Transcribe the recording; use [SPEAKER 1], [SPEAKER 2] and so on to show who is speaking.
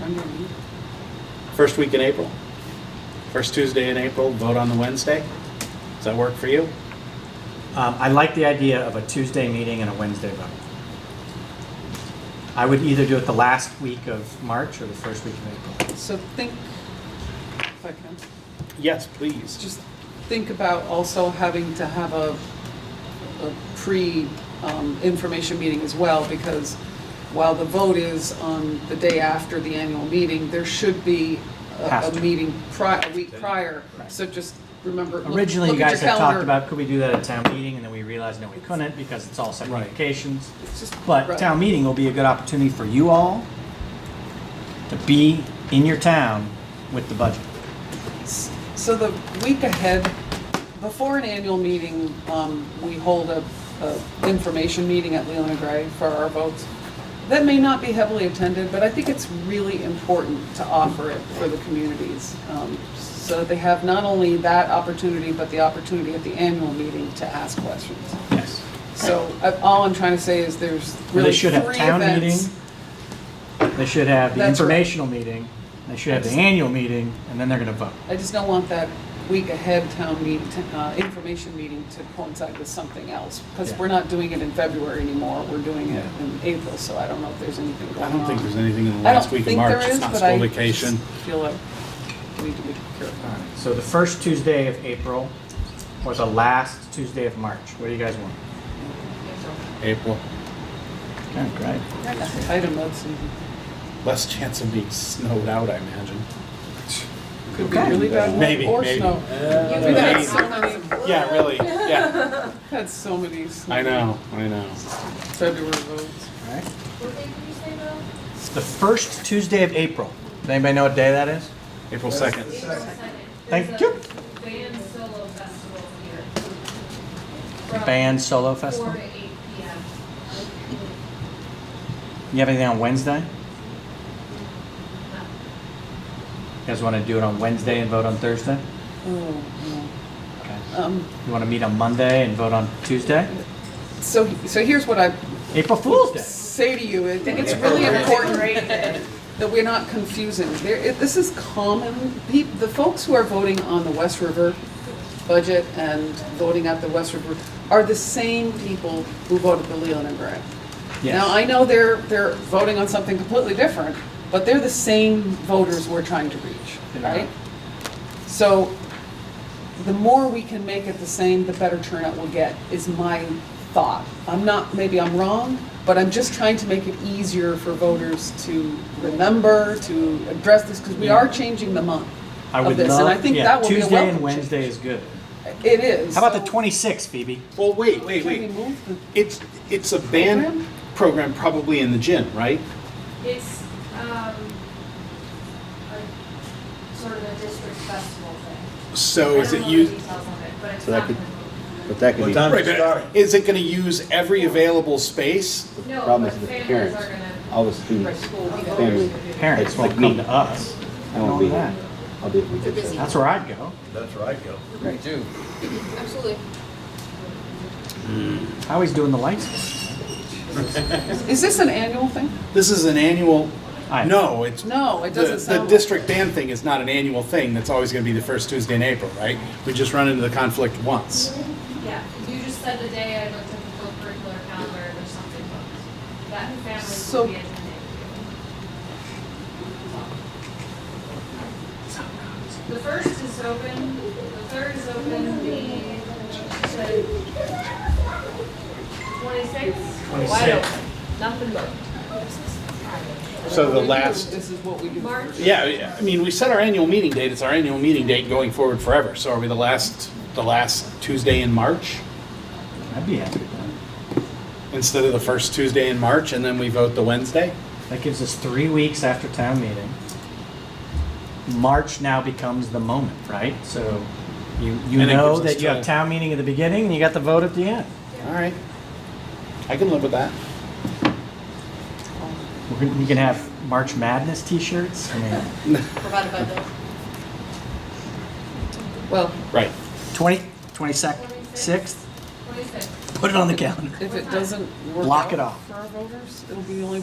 [SPEAKER 1] When did we-
[SPEAKER 2] First week in April? First Tuesday in April, vote on the Wednesday? Does that work for you?
[SPEAKER 3] Um, I like the idea of a Tuesday meeting and a Wednesday vote. I would either do it the last week of March or the first week of April.
[SPEAKER 1] So think, if I can,
[SPEAKER 2] Yes, please.
[SPEAKER 1] just think about also having to have a, a pre-information meeting as well, because while the vote is on the day after the annual meeting, there should be a,
[SPEAKER 3] Has
[SPEAKER 1] a
[SPEAKER 3] to.
[SPEAKER 1] meeting prior, a week prior.
[SPEAKER 3] Right.
[SPEAKER 1] So just remember, look look at your calendar.
[SPEAKER 3] Originally, you guys had talked about, could we do that at town meeting, and then we realized, no, we couldn't, because it's all separate
[SPEAKER 2] Right.
[SPEAKER 3] communications.
[SPEAKER 1] It's just-
[SPEAKER 3] But
[SPEAKER 1] right.
[SPEAKER 3] town meeting will be a good opportunity for you all to be in your town with the budget.
[SPEAKER 1] So the week ahead, before an annual meeting, um, we hold a, a information meeting at Leland and Gray for our votes. That may not be heavily attended, but I think it's really important to offer it for the communities. um, So that they have not only that opportunity, but the opportunity at the annual meeting to ask questions.
[SPEAKER 3] Yes.
[SPEAKER 1] So I- all I'm trying to say is there's
[SPEAKER 3] They
[SPEAKER 1] really
[SPEAKER 3] should
[SPEAKER 1] three
[SPEAKER 3] have town meeting,
[SPEAKER 1] events.
[SPEAKER 3] they should have the
[SPEAKER 1] That's right.
[SPEAKER 3] informational meeting, they should have the annual meeting, and then they're gonna vote.
[SPEAKER 1] I just don't want that week ahead town meeting, uh, information meeting to coincide with something else, because
[SPEAKER 3] Yeah.
[SPEAKER 1] we're not doing it in February anymore, we're doing it
[SPEAKER 3] Yeah.
[SPEAKER 1] in April, so I don't know if there's anything going
[SPEAKER 2] I
[SPEAKER 1] on.
[SPEAKER 2] don't think there's anything in the
[SPEAKER 1] I don't
[SPEAKER 2] last week of
[SPEAKER 1] think there
[SPEAKER 2] March. It's
[SPEAKER 1] is,
[SPEAKER 2] not
[SPEAKER 1] but I
[SPEAKER 2] school vacation.
[SPEAKER 1] just Feel like we need to be careful.
[SPEAKER 3] Alright, So the first Tuesday of April or the last Tuesday of March? What do you guys want?
[SPEAKER 2] April.
[SPEAKER 3] Okay, great.
[SPEAKER 1] That's Item that's,
[SPEAKER 2] Less chance of being snowed out, I imagine.
[SPEAKER 1] could be
[SPEAKER 3] Okay.
[SPEAKER 1] really bad
[SPEAKER 2] Maybe,
[SPEAKER 1] weather or
[SPEAKER 2] maybe.
[SPEAKER 1] snow.
[SPEAKER 2] Uh,
[SPEAKER 1] We've had
[SPEAKER 2] maybe.
[SPEAKER 1] so many,
[SPEAKER 2] Yeah, really, yeah.
[SPEAKER 1] had so many. snow-
[SPEAKER 2] I know, I know.
[SPEAKER 1] February votes.
[SPEAKER 3] All right.
[SPEAKER 4] What day did you say though?
[SPEAKER 3] It's the first Tuesday of April. Does anybody know what day that is?
[SPEAKER 2] April 2nd.
[SPEAKER 4] April second.
[SPEAKER 3] Thank
[SPEAKER 4] There's
[SPEAKER 3] you.
[SPEAKER 4] a Band solo festival here.
[SPEAKER 3] The
[SPEAKER 4] From
[SPEAKER 3] Band Solo Festival.
[SPEAKER 4] Four to eight P M.
[SPEAKER 3] You have anything on Wednesday? You guys want to do it on Wednesday and vote on Thursday?
[SPEAKER 1] Oh,
[SPEAKER 3] Okay.
[SPEAKER 1] no. Um,
[SPEAKER 3] You want to meet on Monday and vote on Tuesday?
[SPEAKER 1] so, so here's what I
[SPEAKER 3] April Fool's Day.
[SPEAKER 1] say to you, it- it's really important that we're not confusing. There, it- this is common, Pe- the folks who are voting on the West River budget and voting at the West River are the same people who voted for Leland and Gray. Now, I know they're, they're voting on something completely different, but they're the same voters we're trying to reach,
[SPEAKER 3] They are.
[SPEAKER 1] right? So the more we can make it the same, the better turnout we'll get, is my thought. I'm not, maybe I'm wrong, but I'm just trying to make it easier for voters to remember, to address this, because we are changing the month
[SPEAKER 3] I
[SPEAKER 1] of
[SPEAKER 3] would
[SPEAKER 1] this, and I
[SPEAKER 3] love,
[SPEAKER 1] think
[SPEAKER 3] yeah,
[SPEAKER 1] that will be a welcome
[SPEAKER 3] Tuesday and
[SPEAKER 1] change.
[SPEAKER 3] Wednesday is good.
[SPEAKER 1] It is.
[SPEAKER 3] How about the 26th, Phoebe?
[SPEAKER 2] Well, wait, wait,
[SPEAKER 1] Can we
[SPEAKER 2] wait.
[SPEAKER 1] move the-
[SPEAKER 2] It's, it's a band
[SPEAKER 1] Program?
[SPEAKER 2] program probably in the gym, right?
[SPEAKER 4] It's, um, a sort of a district festival thing.
[SPEAKER 5] Oh,
[SPEAKER 2] So is
[SPEAKER 4] I
[SPEAKER 2] it
[SPEAKER 4] don't know the
[SPEAKER 2] used?
[SPEAKER 4] details of it, but it's
[SPEAKER 5] So that
[SPEAKER 4] not
[SPEAKER 5] could-
[SPEAKER 4] gonna
[SPEAKER 5] But that could
[SPEAKER 6] What
[SPEAKER 5] be,
[SPEAKER 6] time
[SPEAKER 2] Right,
[SPEAKER 6] does it start?
[SPEAKER 2] but is it gonna use every available space?
[SPEAKER 4] move.
[SPEAKER 5] the
[SPEAKER 4] No,
[SPEAKER 5] problem
[SPEAKER 4] but
[SPEAKER 5] is the
[SPEAKER 4] families
[SPEAKER 5] parents,
[SPEAKER 4] are gonna-
[SPEAKER 5] all the students, families,
[SPEAKER 3] Parents
[SPEAKER 5] It's
[SPEAKER 3] won't
[SPEAKER 5] like
[SPEAKER 3] come
[SPEAKER 5] me.
[SPEAKER 3] to us.
[SPEAKER 5] I won't be here. I'll be at the weekend. so-
[SPEAKER 3] That's where I'd go.
[SPEAKER 6] That's where I go.
[SPEAKER 5] Right.
[SPEAKER 7] Absolutely.
[SPEAKER 3] How he's doing the lights?
[SPEAKER 1] Is this an annual thing?
[SPEAKER 2] This is an annual,
[SPEAKER 3] I-
[SPEAKER 2] no, it's,
[SPEAKER 1] No, it
[SPEAKER 2] The,
[SPEAKER 1] doesn't
[SPEAKER 2] the
[SPEAKER 1] sound.
[SPEAKER 2] district band thing is not an annual thing, that's always gonna be the first Tuesday in April, right? We just run into the conflict once.
[SPEAKER 4] Yeah, you just said the day I looked at the co-curricular calendar, there's something booked. That families
[SPEAKER 1] So-
[SPEAKER 4] will be attending. The first is open, the third is open, the twenty-sixth,
[SPEAKER 7] Wide open. Nothing but.
[SPEAKER 2] So the
[SPEAKER 1] Maybe
[SPEAKER 2] last,
[SPEAKER 1] This is what we do.
[SPEAKER 4] March.
[SPEAKER 2] yeah, I mean, we set our annual meeting date, it's our annual meeting date going forward forever, so are we the last, the last Tuesday in March?
[SPEAKER 3] I'd be happy with that.
[SPEAKER 2] Instead of the first Tuesday in March, and then we vote the Wednesday?
[SPEAKER 3] That gives us three weeks after town meeting. March now becomes the moment, right? So you, you
[SPEAKER 2] And it
[SPEAKER 3] know
[SPEAKER 2] gives us
[SPEAKER 3] that you have
[SPEAKER 2] till-
[SPEAKER 3] town meeting at the beginning and you got the vote at the end.
[SPEAKER 2] Alright, I can live with that.
[SPEAKER 3] We're gonna, we can have March Madness t-shirts. I mean,
[SPEAKER 7] Provided by the.
[SPEAKER 1] Well,
[SPEAKER 2] Right,
[SPEAKER 3] 20, 26th,
[SPEAKER 4] twenty-sixth.
[SPEAKER 3] put it on the calendar.
[SPEAKER 1] if it doesn't work
[SPEAKER 3] Block it
[SPEAKER 1] out
[SPEAKER 3] off.
[SPEAKER 1] for our voters, it'll be the only